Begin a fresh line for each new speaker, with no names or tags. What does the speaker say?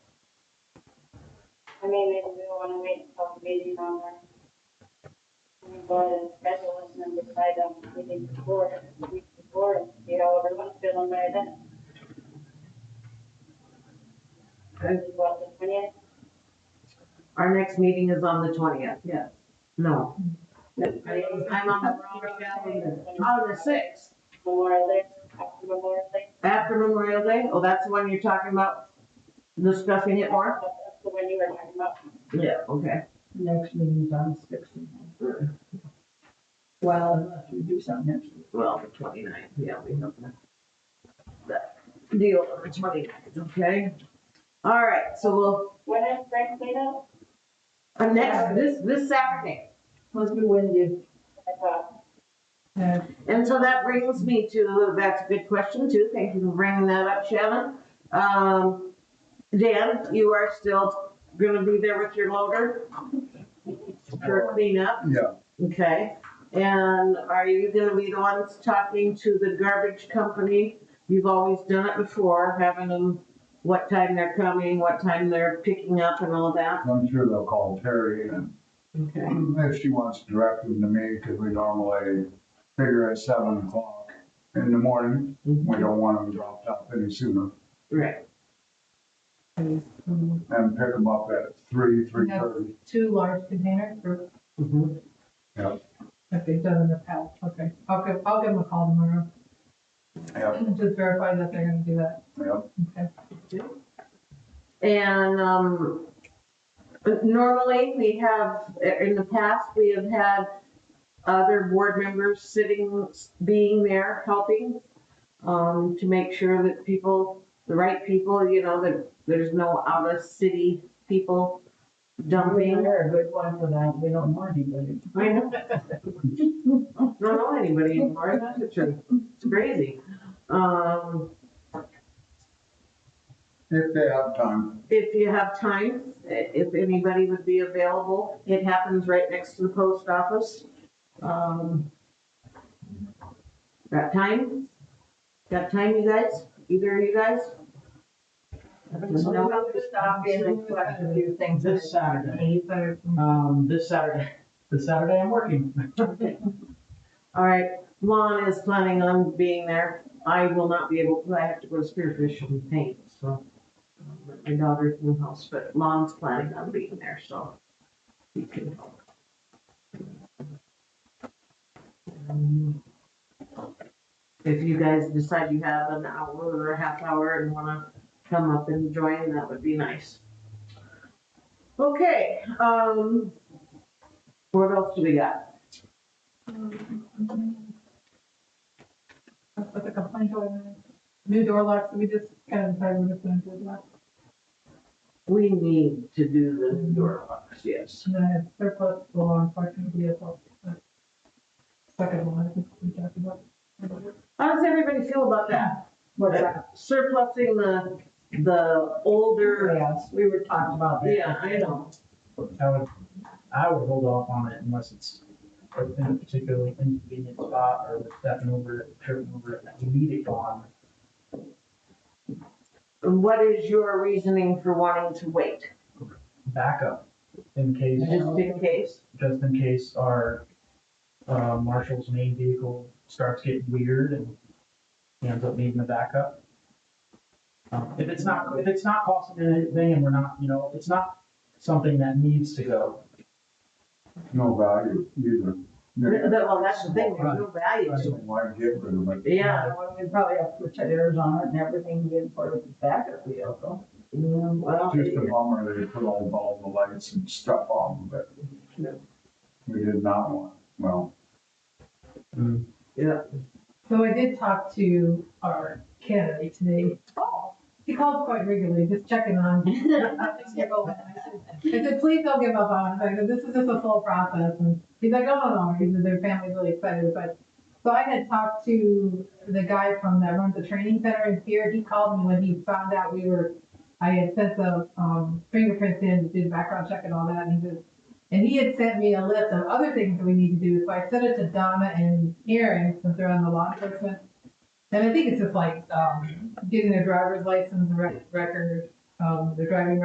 me, maybe we wanna wait until the meeting on that. We go to the specialist and then decide on the meeting before, the week before, and see how everyone's feeling by then.
Okay.
About the twentieth,
Our next meeting is on the twentieth. Yeah. No. I'm on the wrong calendar. On Oh, the sixth,
Memorial Day, after Memorial Day.
after Memorial Day, oh, that's the one you're talking about discussing it more?
That's the one you were talking about.
Yeah, okay.
Next meeting's on the sixteenth. Well, unless we do something next week.
Well, the twenty-ninth, yeah, we have that. That deal on the twenty-ninth, okay? All right, so we'll,
When is spring cleanup?
uh, next, this, this Saturday.
Must be windy.
I thought,
Yeah.
And so that brings me to, that's a good question too. Thank you for bringing that up, Shannon. Um, Dan, you are still gonna be there with your loader for cleanup,
Yeah,
okay? And are you gonna be the ones talking to the garbage company? You've always done it before, having them, what time they're coming, what time they're picking up and all that.
I'm sure they'll call Terry and
Okay.
if she wants to direct them to me, because we normally figure at seven o'clock in the morning.
Mm-hmm.
We don't want them dropped off any sooner
Right,
Two
and pick them up at three, three thirty.
large containers or
mhm,
if they've done in the past, okay. I'll give, I'll give them a call tomorrow.
Yep,
Just verify that they're gonna do that.
yep.
Okay.
And, um, normally we have, in the past, we have had other board members sitting, being there, helping, um, to make sure that people, the right people, you know, that there's no out of city people dumping.
a good one for that. We don't want anybody.
I know. Don't know anybody anymore, that's the truth. It's crazy. Um,
If they have time,
If you have time, i- if anybody would be available, it happens right next to the post office. Um, Got time? Got time, you guys? Either of you guys?
So
No?
we'll stop in and collect a few things
This
this Saturday.
Um, this Saturday, this Saturday I'm working.
All right, Lon is planning on being there. I will not be able, I have to go to Spearfish and paint, so. um, My daughter's in the house, but Lon's planning on being there, so. He can help. Um, If you guys decide you have an hour or a half hour and wanna come up and join, that would be nice. Okay, um. What else do we got?
With the complaint on the new door locks, we just kind of decided we're just gonna do that.
We need to do the new door locks, yes.
And then I had surplus the law enforcement vehicle. but Second one, I think we talked about.
How does everybody feel about that?
What's that?
Surplusing the, the older,
Yes, we were talking about that.
yeah, I know.
I would, I would hold off on it unless it's in a particularly inconvenient spot or with stepping over it, tripping over it, that we need it gone.
And What is your reasoning for wanting to wait?
Backup in case,
Just in case?
just in case our, uh, marshal's main vehicle starts getting weird and he ends up needing a backup. Um, If it's not, if it's not costing anything and we're not, you know, if it's not something that needs to go,
no value either.
Th-
They
that- Well, that's the thing, there's no value to
don't want to get rid of it.
it. Yeah,
Well, We probably have to put tires on it and everything to get part of the backup vehicle.
yeah, Mm, well,
Just a bummer they put all, all the lights and stuff on, but
Yeah.
we did not want, well,
yeah.
So I did talk to our candidate today. Oh. He calls quite regularly, just checking on. nothing's gonna go wrong. I said, please don't give up on us. I said, this is just a full process. And he's like, oh, no, no. He said, their family's really excited. But, so I had talked to the guy from that runs the training center in here. He called me when he found out we were, I had sent the um, fingerprints in, did background check and all that. And he says, and he had sent me a list of other things that we need to do, so I sent it to Donna and Aaron, since they're on the law enforcement. And I think it's just like, um, getting their driver's license, rec- record, um, their driving